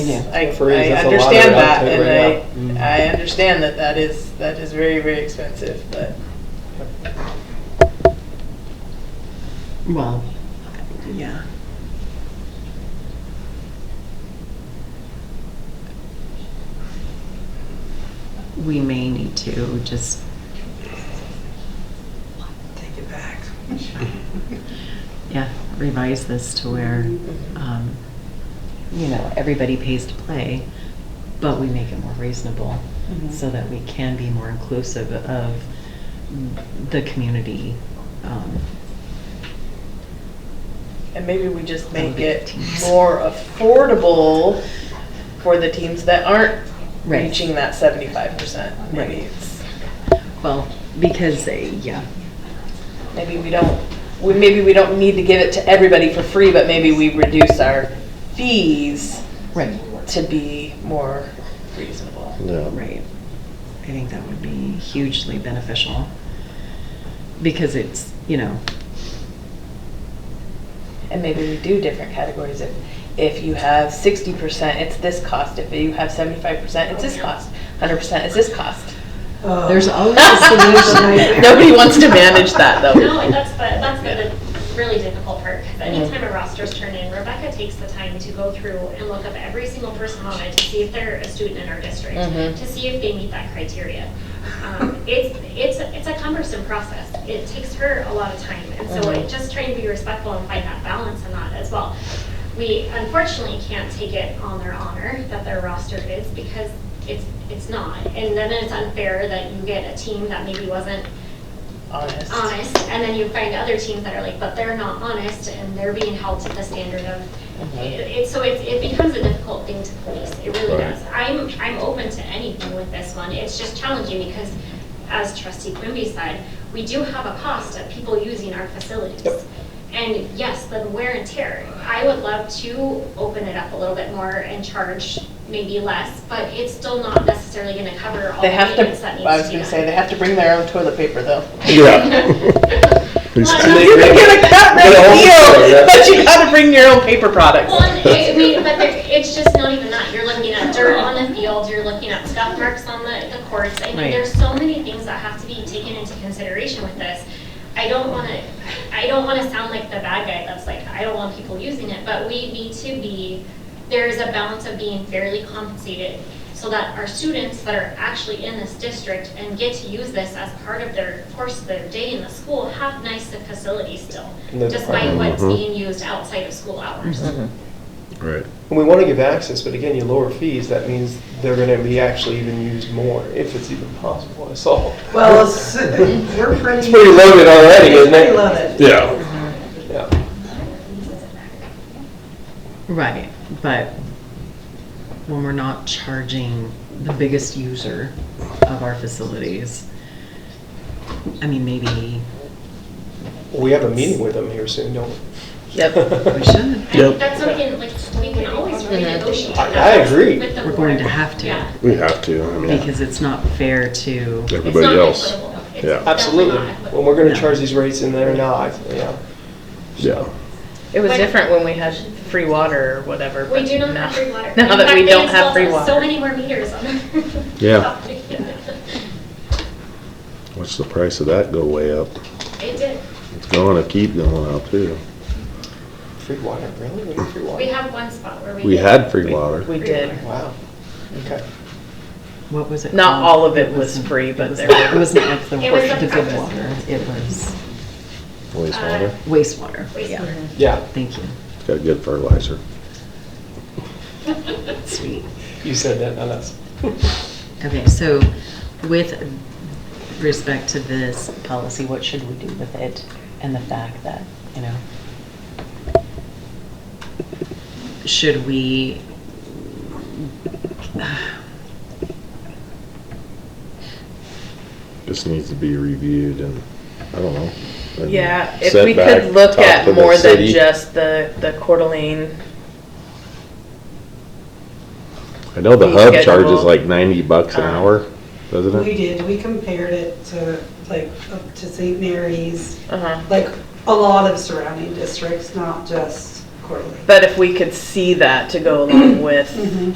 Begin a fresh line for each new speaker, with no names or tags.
Yeah.
I,
For reasons,
I
that's a lot of
understand that,
outtake right
and
now. Mm-hmm.
I, I understand that that is, that is very, very expensive, but
Well, yeah. We may need to just. Take it back. Yeah, revise this to where, um, you know, everybody pays to play, but we make it more reasonable so that we can be more inclusive of the community. um,
And maybe we just make
Olympic
it
teams.
more affordable for the teams that aren't
Right.
reaching that seventy-five percent. Maybe
Right.
it's,
Well, because, they- yeah,
maybe we don't, we, maybe we don't need to give it to everybody for free, but maybe we reduce our fees
right,
to be more reasonable.
Yeah.
right. I think that would be hugely beneficial. Because it's, you know,
And maybe we do different categories. If, if you have sixty percent, it's this cost. If you have seventy-five percent, it's this cost. Hundred percent, it's this cost.
there's always a solution.
Nobody wants to manage that,
No,
though.
and that's the, that's the really difficult part, because anytime a roster's turned in, Rebecca takes the time to go through and look up every single person on it to see if they're a student in our district,
Mhm.
to see if they meet that criteria. Um, It's, it's, it's a cumbersome process. It takes her a lot of time, and so
Mhm.
it- just trying to be respectful and find that balance in that as well. We unfortunately can't take it on their honor that their roster is, because it's, it's not. And then it's unfair that you get a team that maybe wasn't
Honest.
honest, and then you find other teams that are like, but they're not honest, and they're being held to the standard of,
Mhm.
it, it- so it's, it becomes a difficult thing to police, it really
Right.
does. I'm, I'm open to anything with this one, it's just challenging because, as trustee Quimby said, we do have a cost of people using our facilities. And yes, the wear and tear, I would love to open it up a little bit more and charge maybe less, but it's still not necessarily gonna cover all the
They have to,
maintenance that needs to be done.
I was gonna say, they have to bring their own toilet paper, though.
Please.
Well,
And they-
You can get a cut rate
Their own toilet,
deal,
yeah.
but you gotta bring your own paper products.
Well, and it- I mean, but there- it's just not even that. You're looking at dirt on the field, you're looking at scuff marks on the, the courts. I mean,
Right.
there's so many things that have to be taken into consideration with this. I don't want to, I don't want to sound like the bad guy that's like, I don't want people using it, but we need to be, there is a balance of being fairly compensated so that our students that are actually in this district and get to use this as part of their course of their day in the school have nicer facilities still,
And the
despite what's
department. Mhm.
being used outside of school hours.
Right.
And we want to give access, but again, you lower fees, that means they're going to be actually even used more, if it's even possible at all.
Well, it's- we're pretty.
It's pretty loaded already,
It's
isn't
pretty
it?
loaded.
Yeah.
Yeah.
Right, but when we're not charging the biggest user of our facilities, I mean, maybe
We have a meeting with them here soon, don't we?
Yep.
we should.
I think that's something, like, we can always renegotiate.
I- I agree.
with the
We're going
board.
to have to.
Yeah.
We have to. I mean,
Because it's not fair to,
It's
everybody
not
else.
equitable. It's
Yeah.
definitely
Absolutely.
not equitable.
When we're going
No.
to charge these rates in there now, I- yeah.
Yeah.
It was
When-
different when we had free water or whatever.
We
but
do not
now-
have free water.
Now that
In fact,
we
they
don't have
installed
free
So
water.
many more meters on the
Yeah.
property.
Watch the price of that go way up.
It did.
It's going to keep going up too.
Free water, really? We have free
We
water?
have one spot where we.
We
did. uh,
had free water.
We did.
Wow. Okay.
what was it?
Not
called?
all of it was
wasn't-
free, but
was-
there
It
were.
wasn't like the,
It was
the
the
good
preface.
water, it was
Wastewater.
wastewater. Yeah,
Wastewater.
Yeah,
thank you,
It's got good fertilizer.
sweet.
you said that, not us.
Okay, so with respect to this policy, what should we do with it and the fact that, you know? Should we?
Just needs to be reviewed and, I don't know. and
Yeah, if
set
we
back,
could look
talk to
at
the
more than
city.
just the, the Coeur d'Alene.
I know the
fee
hub
schedule.
charges like ninety bucks an
Um,
hour, doesn't
We
it?
did, we compared it to, like, up to St. Mary's,
Uh-huh.
like, a lot of surrounding districts, not just Cortland. Mm-hmm.
But if we could see that to go along with